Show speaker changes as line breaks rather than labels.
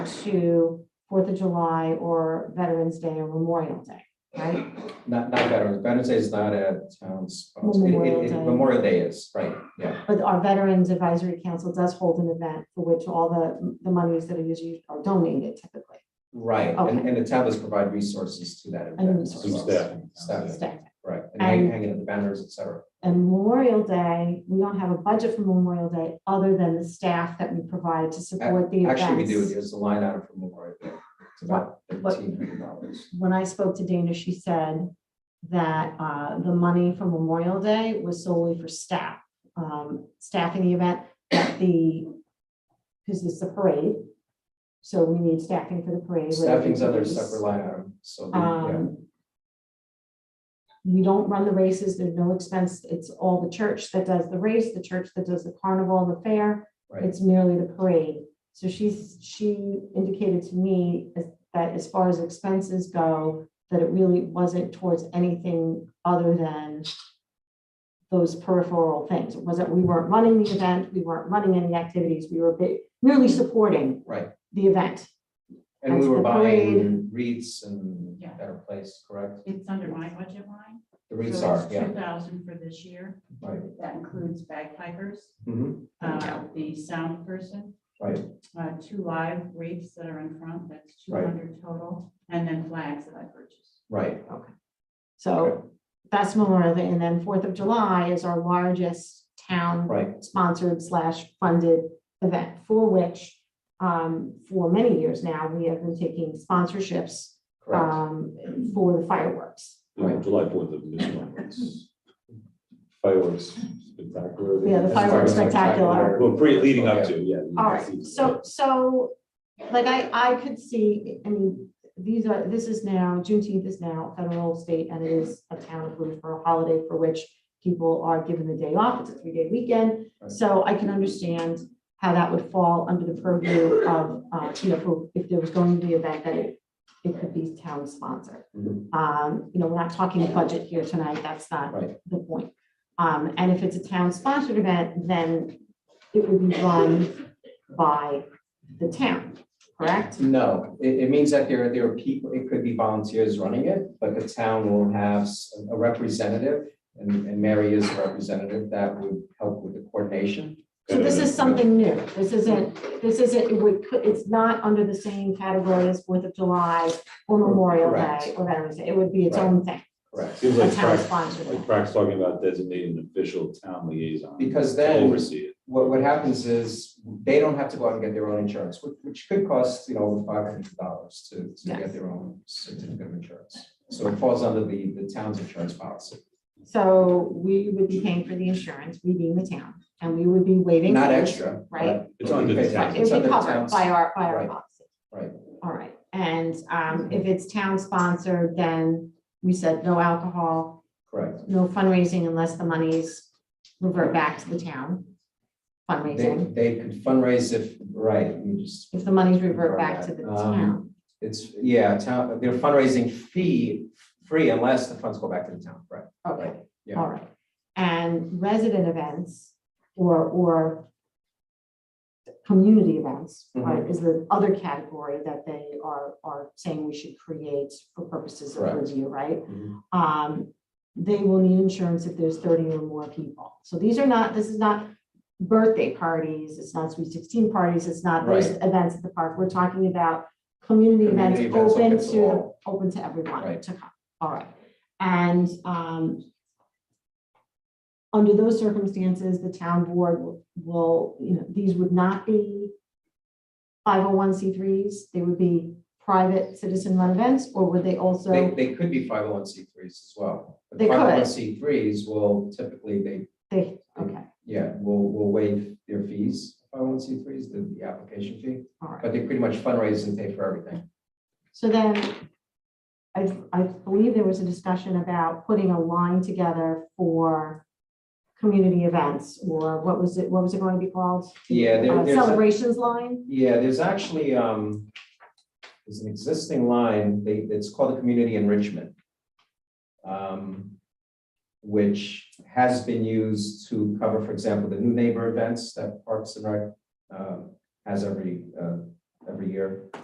to Fourth of July or Veterans Day or Memorial Day, right?
Not, not Veterans, Veterans Day is not um, a town sponsored,
Memorial Day.
Memorial Day is, right, yeah,
But our Veterans Advisory Council does hold an event for which all the, the monies that are usually are donated typically.
right, and,
Okay.
and the town does provide resources to that. event
And
as
resources.
well.
Staffing.
Staffing,
Staff.
right, and hang-
And-
hanging up the banners, et cetera.
And Memorial Day, we don't have a budget for Memorial Day other than the staff that we provide to support the events.
Actually, we do, there's a line item for Memorial Day, it's about
What-
thirteen hundred dollars.
When I spoke to Dana, she said that uh, the money from Memorial Day was solely for staff, um, staffing the event, that the, because it's the parade. So we need staffing for the parade.
Staffing's other separate line item, so, the- yeah,
Um, We don't run the races, there's no expense, it's all the church that does the race, the church that does the carnival and the fair,
right,
it's merely the parade. So she's, she indicated to me as- that as far as expenses go, that it really wasn't towards anything other than those peripheral things, it wasn't, we weren't running the event, we weren't running any activities, we were ba- merely supporting
right,
the event.
and we
That's
were
the
buying wreaths and
Yeah.
Better Place, correct?
It's under my budget line.
The wreaths are, yeah,
Two thousand for this year.
right,
That includes bagpipers,
mhm,
uh, the sound person,
right,
uh, two live wreaths that are in front, that's two
Right.
hundred total, and then flags that I purchased.
right,
So that's Memorial Day, and then Fourth of July is our largest town
right,
sponsored slash funded event for which um, for many years now, we have been taking sponsorships
correct.
um, for the fireworks.
Yeah, July fourth of this month. it's Fireworks spectacular.
Yeah, the fireworks spectacular.
Well, pre, leading up to, yeah.
All right, so, so, like, I, I could see, I mean, these are, this is now, Juneteenth is now federal, state, and it is a town approved for a holiday for which people are given the day off, it's a three-day weekend, so I can understand how that would fall under the purview of, uh, you know, for- if there was going to be an event, that it, it could be town sponsored.
Mhm.
Um, you know, we're not talking budget here tonight, that's not
Right.
the point. Um, and if it's a town-sponsored event, then it would be run by the town, correct?
No, it, it means that there, there are people, it could be volunteers running it, but the town will have s- a representative. And, and Mary is a representative that would help with the coordination.
So this is something new. This isn't, this isn't, it would, it's not under the same category as Fourth of July or Memorial Day
Correct.
or Veterans Day. It would be its
Right.
own thing,
Correct.
Seems
a
like
town
Frank's,
sponsored
like
event.
Frank's talking about designating an official town liaison.
Because
to
then-
Oversee it.
What, what happens is they don't have to go out and get their own insurance, which, which could cost, you know, over five hundred dollars to, to get
Yes.
their own certificate of insurance. So it falls under the, the town's insurance policy,
So we would be paying for the insurance, we being the town, and we would be waiving.
not
fees.
extra. but-
Right.
It's
but we
under the
pay
town.
tax.
It
It's
would
under
be
the
covered
town's-
by our, by our
Right.
policy.
Right. Mm-hmm.
All right, and um, if it's town sponsored, then we said no alcohol,
Correct.
no fundraising unless the monies revert back to the town.
They,
Fundraising,
they could fundraise if, right, you just
if the monies revert back to the
Um,
town.
It's, yeah, town, their fundraising fee, free unless the funds go back to the town, right?
Okay,
yeah.
all right. And resident events or, or community events
Mm-hmm.
right, is the other category that they are, are saying we should create for purposes of
Correct.
review, right?
Mhm.
Um, they will need insurance if there's thirty or more people. So these are not, this is not birthday parties, it's not sweet sixteen parties, it's not those events at the park. We're talking about community events
Community events
open
open
to,
to
the-
all.
open to everyone
Right.
to come. All right. And, um, under those circumstances, the town board will- will, you know, these would not be five oh one C threes, they would be private citizen run events, or would they
They,
also,
they could be five oh one C threes as well. But
They could.
501c threes will typically, they,
they, okay,
yeah, will, will waive their fees, five oh one C threes, the, the application fee.
all right.
But they pretty much fundraise and pay for everything.
So then, I, I believe there was a discussion about putting a line together for community events, or what was it, what was it going to be called?
Yeah, there-
Uh,
there's a-
Celebrations line,
Yeah, there's actually, um, there's an existing line, they, it's called the community enrichment. um, Which has been used to cover, for example, the new neighbor events that Parks and Rec, um, has every, uh, every year.